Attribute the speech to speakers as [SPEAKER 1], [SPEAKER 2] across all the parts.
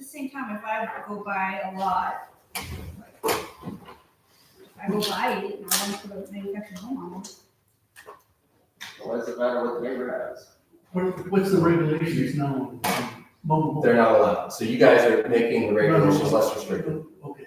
[SPEAKER 1] same time, if I go buy a lot, if I go buy it and I want to put a manufactured home on it,
[SPEAKER 2] What's the matter with the neighbor house?
[SPEAKER 3] What, what's the regulations now on mobile homes?
[SPEAKER 4] They're not allowed. So you guys are making the regulations less restrictive.
[SPEAKER 3] Oh, Okay.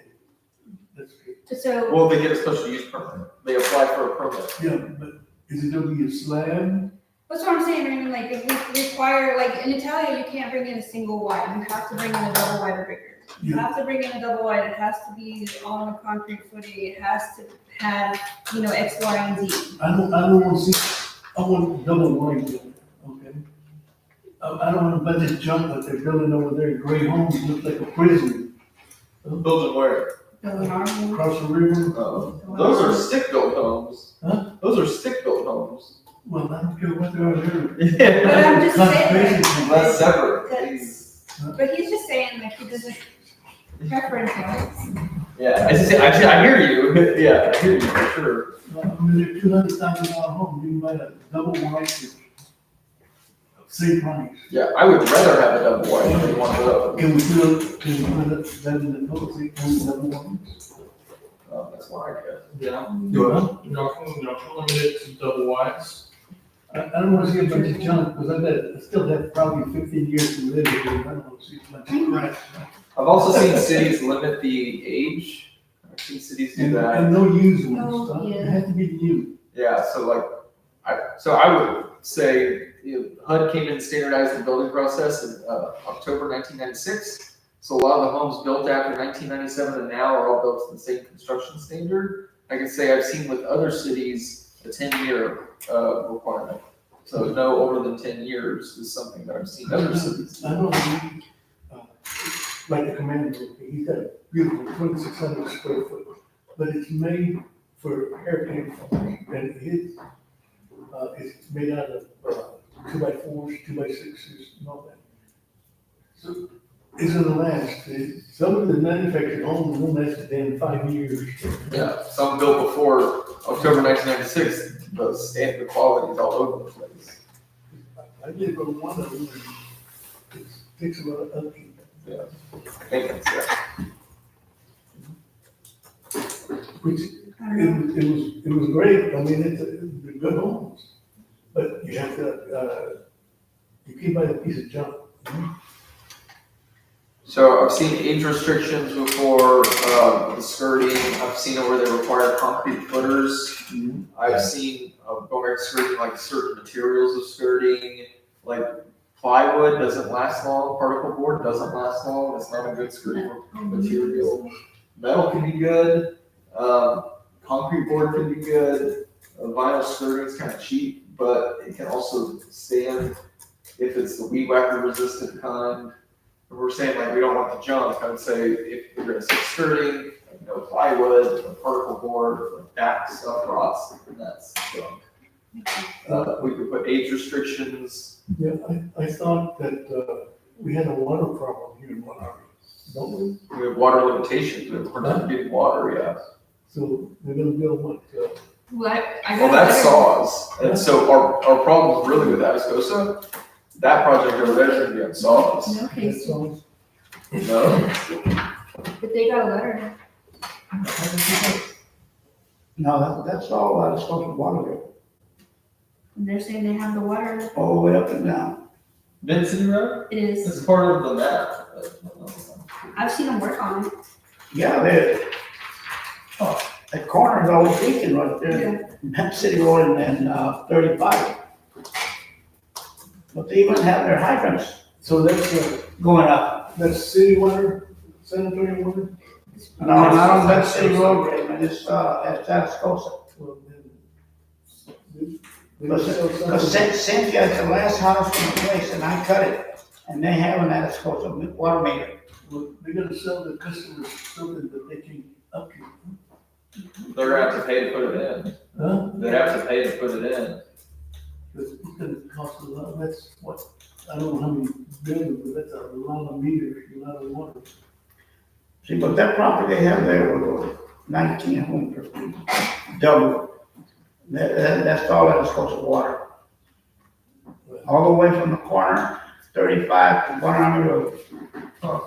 [SPEAKER 3] That's good.
[SPEAKER 1] so,
[SPEAKER 2] Well, they get a special use permit. They apply for a permit.
[SPEAKER 3] Yeah, but is it gonna be a slab?
[SPEAKER 1] that's what I'm saying, Raymond, like, if we require, like, in Italia, you can't bring in a single wide, you have to bring in a double wide or bigger. You
[SPEAKER 3] Yeah,
[SPEAKER 1] have to bring in a double wide, it has to be on a concrete footing, it has to have, you know, X, Y, and Z.
[SPEAKER 3] I don't, I don't wanna see, I want double wide, building, okay? I, I don't wanna buy this junk that they're building over there, gray homes, look like a prison,
[SPEAKER 2] Building where?
[SPEAKER 1] Building our home,
[SPEAKER 3] across the river.
[SPEAKER 2] Oh. Those
[SPEAKER 1] building our
[SPEAKER 2] are
[SPEAKER 1] home.
[SPEAKER 2] stick-built homes.
[SPEAKER 3] Huh?
[SPEAKER 2] Those are stick-built homes.
[SPEAKER 3] Well, I don't care what they are there.
[SPEAKER 1] But I'm just saying,
[SPEAKER 3] Conservation.
[SPEAKER 2] Let's separate these.
[SPEAKER 1] that's, but he's just saying, like, he doesn't preference it.
[SPEAKER 2] Yeah, I just, I, just- I hear you. Yeah, I hear you for sure.
[SPEAKER 3] I mean, two hundred thousand dollar home, you can buy a double wide, same price.
[SPEAKER 2] Yeah, I would rather have a double wide than one of those.
[SPEAKER 3] Can we do, it- can we do it better than those, eight point seven one?
[SPEAKER 2] Oh, that's why I guess.
[SPEAKER 5] Yeah,
[SPEAKER 4] You want?
[SPEAKER 5] y'all can, y'all can limit it to double wides.
[SPEAKER 3] I, I don't wanna see a bunch of junk, because I bet, I still have probably fifteen years to live, here. I don't wanna see a bunch of crap.
[SPEAKER 2] I've also seen cities limit the age. I've seen cities do
[SPEAKER 3] And,
[SPEAKER 2] that.
[SPEAKER 3] and no used
[SPEAKER 1] No,
[SPEAKER 3] ones, huh?
[SPEAKER 1] yeah.
[SPEAKER 3] it has to be new.
[SPEAKER 2] Yeah, so like, I, so I would say you know, HUD came in and standardized the building process in uh, October 1996. So a lot of the homes built after 1997 and now are all built to the same construction standard. I can say I've seen with other cities a 10-year uh, requirement. So no older than 10 years is something that I've seen other cities.
[SPEAKER 3] I don't need, uh, like the commander, he's got a beautiful twenty-six hundred square foot, but it's made for airplane, and it's, uh, it's made out of, uh, two by fours, two by sixes, and all that. So, it's gonna last, It- some of the manufactured homes will last a damn five years.
[SPEAKER 2] Yeah, some built before October 1996, but standard quality is all over the place.
[SPEAKER 3] I live on one of them, and it takes a lot of upkeep.
[SPEAKER 2] I think that's it.
[SPEAKER 3] Which,
[SPEAKER 1] I don't
[SPEAKER 3] it,
[SPEAKER 1] know.
[SPEAKER 3] was- it was, it was great, I mean, it's, it's good homes, but you have to, uh, you can't buy a piece of junk.
[SPEAKER 2] So I've seen age restrictions before, um, the skirting, I've seen it where they require concrete footers. I've seen, uh, going back to skirting, like certain materials of skirting, like plywood doesn't last long, particle board doesn't last long, it's not a good skirting material. Metal can be good, um, concrete board can be good, Uh, vinyl skirting's kind of cheap, but it can also stand if it's the weed whacker resistant kind. If we're saying like we don't want the junk, I would say if we're gonna say skirting, like no plywood, no particle board, like that stuff rots, and that's junk. Uh, we could put age restrictions,
[SPEAKER 3] Yeah, I, I thought that, uh, we had a water problem here in Monterey, don't we?
[SPEAKER 2] we have water limitations, but we're not getting water yet.
[SPEAKER 3] So they're gonna build what, uh,
[SPEAKER 1] Well, I- I
[SPEAKER 2] Well,
[SPEAKER 1] got a
[SPEAKER 2] that's
[SPEAKER 1] letter.
[SPEAKER 2] saws, and so our, our problem really with Atascosa, that project over there should be on saws,
[SPEAKER 1] No
[SPEAKER 3] that
[SPEAKER 1] case,
[SPEAKER 3] song?
[SPEAKER 2] no?
[SPEAKER 1] but they got a letter.
[SPEAKER 6] No, that, that's all I was supposed to water it,
[SPEAKER 1] And they're saying they have the water.
[SPEAKER 6] all the way up and down.
[SPEAKER 2] Vincent Road,
[SPEAKER 1] It is.
[SPEAKER 2] it's part of the map. but-
[SPEAKER 1] I've seen them work on it.
[SPEAKER 6] Yeah, that, oh, that corner's always leaking right there, City Road and, and, uh, thirty-five. But they even have their hydrants
[SPEAKER 3] So that's, uh,
[SPEAKER 6] going up.
[SPEAKER 3] that's city water, sanitary water?
[SPEAKER 6] No, not on that City Road, Raymond, it's, uh, at Atascosa.
[SPEAKER 3] Well, then- They
[SPEAKER 6] But
[SPEAKER 3] sell
[SPEAKER 6] Cyn-
[SPEAKER 3] some-
[SPEAKER 6] Cause Cyn- Cynthia's the last house in the place, and I cut it, and they have an Atascosa water meter.
[SPEAKER 3] Well, They're gonna sell the customers something that they can upkeep,
[SPEAKER 2] They're gonna have to pay to put it
[SPEAKER 3] huh?
[SPEAKER 2] in, they have to pay to put it in.
[SPEAKER 3] Because it's gonna cost a lot, that's what, I don't know how many billions, but that's a lot of meter, a lot of water.
[SPEAKER 6] See, but that property they have there was nineteen hundred, double. That, that, that's all that is supposed to water. All the way from the corner, thirty-five to one hundred road.